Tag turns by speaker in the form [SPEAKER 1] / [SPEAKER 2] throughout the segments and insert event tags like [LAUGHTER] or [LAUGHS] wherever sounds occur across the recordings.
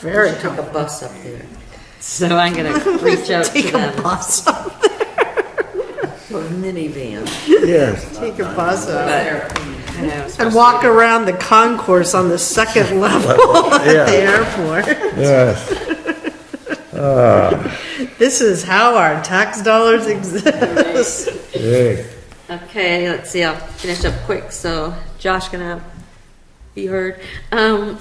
[SPEAKER 1] Very
[SPEAKER 2] Took
[SPEAKER 1] tough.
[SPEAKER 2] a bus up there. So I'm [LAUGHS] gonna reach out to
[SPEAKER 1] Take a
[SPEAKER 2] them,
[SPEAKER 1] bus,
[SPEAKER 2] or minivan,
[SPEAKER 3] Yes,
[SPEAKER 1] take a bus up.
[SPEAKER 2] but, you know, [LAUGHS]
[SPEAKER 1] and walk around the concourse on the second level [LAUGHS] at the airport.
[SPEAKER 3] yes.
[SPEAKER 1] This is how our tax dollars exist. [LAUGHS]
[SPEAKER 3] Hey,
[SPEAKER 2] Okay, let's see, I'll finish up quick, so Josh gonna be heard. Um,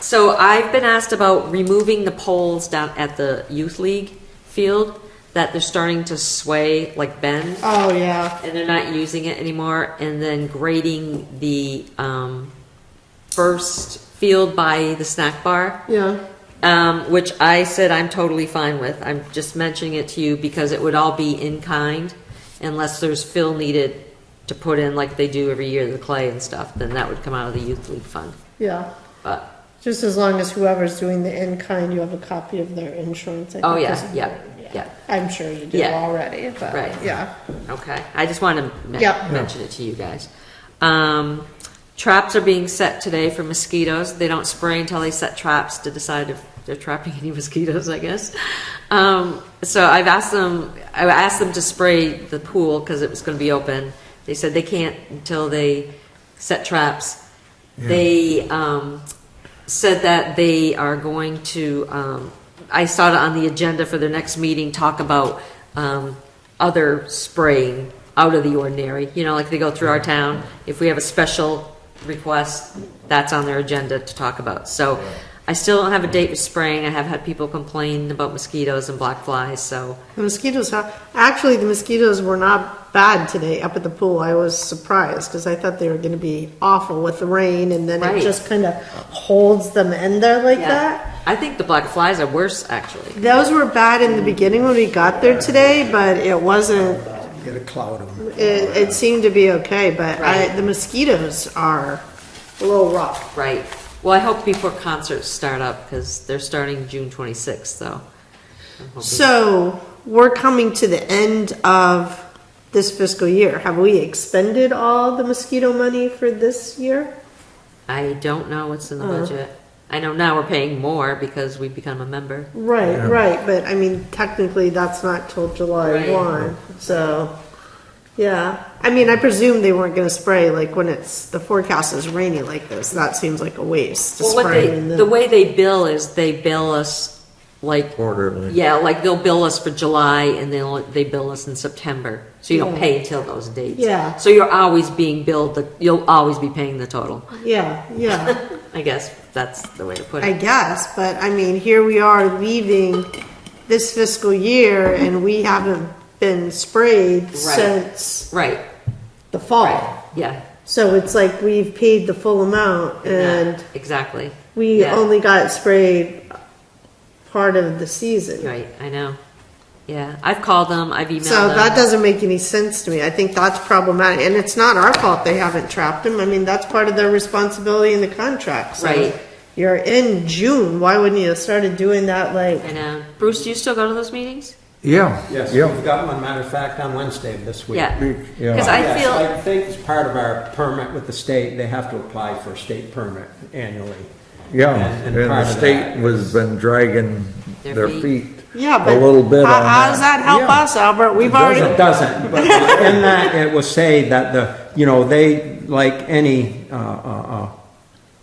[SPEAKER 2] so I've been asked about removing the poles down at the youth league field, that they're starting to sway, like bend,
[SPEAKER 1] Oh, yeah.
[SPEAKER 2] and they're not using it anymore, and then grading the, um, first field by the snack bar
[SPEAKER 1] Yeah.
[SPEAKER 2] um, which I said I'm totally fine with. I'm just mentioning it to you because it would all be in kind unless there's fill needed to put in like they do every year, the clay and stuff, then that would come out of the youth league fund.
[SPEAKER 1] Yeah.
[SPEAKER 2] But,
[SPEAKER 1] Just as long as whoever's doing the in kind, you have a copy of their insurance. I
[SPEAKER 2] oh
[SPEAKER 1] think
[SPEAKER 2] yeah,
[SPEAKER 1] is-
[SPEAKER 2] yeah, yeah,
[SPEAKER 1] I'm sure you do
[SPEAKER 2] Yeah.
[SPEAKER 1] already, but
[SPEAKER 2] Right.
[SPEAKER 1] yeah.
[SPEAKER 2] okay. I just want to men-
[SPEAKER 1] Yeah.
[SPEAKER 2] mention it to you guys. Um, traps are being set today for mosquitoes. They don't spray until they set traps to decide if they're trapping [LAUGHS] any mosquitoes, I guess. Um, so I've asked them, I asked them to spray the pool because it was going to be open. They said they can't until they set traps. They um, said that they are going to, um, I saw it on the agenda for their next meeting, talk about um, other spraying out of the ordinary, you know, like they go through our town. If we have a special request, that's on their agenda to talk about. So I still don't have a date with spraying. I have had people complain about mosquitoes and black flies, so,
[SPEAKER 1] The mosquitoes, ha- actually, the mosquitoes were not bad today up at the pool. I was surprised because I thought they were going to be awful with the rain and then it
[SPEAKER 2] Right.
[SPEAKER 1] just kind of holds them in there like that.
[SPEAKER 2] yeah. I think the black flies are worse, actually.
[SPEAKER 1] Those were bad in the beginning when we got there today, but it wasn't,
[SPEAKER 3] get a cloud of them.
[SPEAKER 1] it, it seemed to be okay, but I,
[SPEAKER 2] Right.
[SPEAKER 1] the mosquitoes are a little rough.
[SPEAKER 2] Right. Well, I hope before concerts start up, because they're starting June 26th, so. I'm hoping-
[SPEAKER 1] So we're coming to the end of this fiscal year. Have we expended all the mosquito money for this year?
[SPEAKER 2] I don't know what's in the budget. I know now we're paying more because we've become a member.
[SPEAKER 1] Right, right, but I mean, technically, that's not till July
[SPEAKER 2] Right.
[SPEAKER 1] one, so, yeah. I mean, I presume they weren't gonna spray, like, when it's, the forecast is rainy like this, that seems like a waste to
[SPEAKER 2] Well, what
[SPEAKER 1] spray.
[SPEAKER 2] they,
[SPEAKER 1] in
[SPEAKER 2] the way they bill is they bill us like.
[SPEAKER 3] Quarterly.
[SPEAKER 2] Yeah, like they'll bill us for July and they'll, they bill us in September. So you don't
[SPEAKER 1] Yeah.
[SPEAKER 2] pay until those dates.
[SPEAKER 1] Yeah.
[SPEAKER 2] So you're always being billed, the you'll always be paying the total.
[SPEAKER 1] Yeah, yeah,
[SPEAKER 2] I guess that's the way to put
[SPEAKER 1] I
[SPEAKER 2] it.
[SPEAKER 1] guess, but I mean, here we are leaving this fiscal year and we haven't been sprayed since
[SPEAKER 2] Right,
[SPEAKER 1] the fall.
[SPEAKER 2] right, yeah.
[SPEAKER 1] So it's like we've paid the full amount and
[SPEAKER 2] Yeah, Exactly.
[SPEAKER 1] We
[SPEAKER 2] Yeah.
[SPEAKER 1] only got sprayed part of the season.
[SPEAKER 2] Right, I know. Yeah, I've called them, I've emailed them.
[SPEAKER 1] So that doesn't make any sense to me. I think that's problematic. And it's not our fault they haven't trapped them. I mean, that's part of their responsibility in the contract. So
[SPEAKER 2] Right.
[SPEAKER 1] You're in June. Why wouldn't you have started doing that like,
[SPEAKER 2] I know. Bruce, do you still go to those meetings?
[SPEAKER 3] Yeah,
[SPEAKER 4] Yes,
[SPEAKER 3] yeah.
[SPEAKER 4] we've got one, matter of fact, on Wednesday of this week.
[SPEAKER 2] Yeah.
[SPEAKER 3] yeah.
[SPEAKER 2] Because I
[SPEAKER 4] Yes,
[SPEAKER 2] feel,
[SPEAKER 4] I think it's part of our permit with the state, they have to apply for a state permit annually.
[SPEAKER 3] Yeah,
[SPEAKER 4] And-
[SPEAKER 3] and
[SPEAKER 4] and
[SPEAKER 3] the
[SPEAKER 4] part of that
[SPEAKER 3] state was uh, been dragging
[SPEAKER 2] Their
[SPEAKER 3] their
[SPEAKER 2] feet.
[SPEAKER 3] feet
[SPEAKER 1] yeah,
[SPEAKER 3] a
[SPEAKER 1] but
[SPEAKER 3] little bit on
[SPEAKER 1] how, how does
[SPEAKER 3] that.
[SPEAKER 1] that help
[SPEAKER 4] Yeah.
[SPEAKER 1] us, Albert? We've
[SPEAKER 4] It
[SPEAKER 1] already,
[SPEAKER 4] doesn't, but in that, it will say that the, you know, they, like any, uh, uh, uh,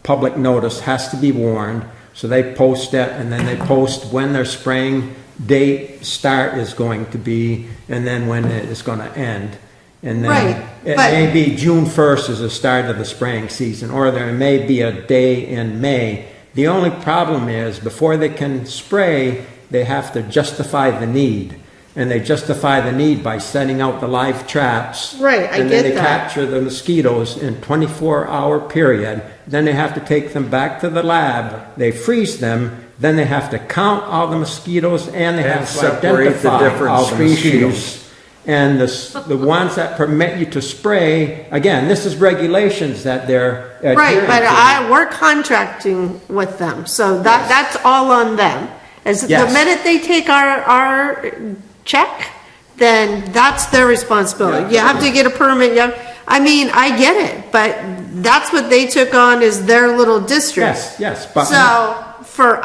[SPEAKER 4] public notice has to be warned, so they post it, and then they post when their spraying date start is going to be, and then when it is gonna end. And
[SPEAKER 1] Right,
[SPEAKER 4] then, it
[SPEAKER 1] but-
[SPEAKER 4] may be June first is the start of the spraying season, or there may be a day in May. The only problem is, before they can spray, they have to justify the need. And they justify the need by setting out the live traps.
[SPEAKER 1] Right, I
[SPEAKER 4] And then
[SPEAKER 1] get
[SPEAKER 4] they
[SPEAKER 1] that.
[SPEAKER 4] capture the mosquitoes in twenty-four hour period, then they have to take them back to the lab, they freeze them, then they have to count all the mosquitoes and they
[SPEAKER 3] And
[SPEAKER 4] have to
[SPEAKER 3] separate the
[SPEAKER 4] identify
[SPEAKER 3] different
[SPEAKER 4] all the
[SPEAKER 3] species.
[SPEAKER 4] mosquitoes. And the, s- the ones that permit you to spray, again, this is regulations that they're adhering
[SPEAKER 1] right, but
[SPEAKER 4] to.
[SPEAKER 1] I, we're contracting with them. So that, that's all on them. As the
[SPEAKER 4] Yes.
[SPEAKER 1] minute they take our, our check, then that's their responsibility. You have to get a permit, you have, I mean, I get it, but that's what they took on is their little district.
[SPEAKER 4] Yes, yes, but-
[SPEAKER 1] So for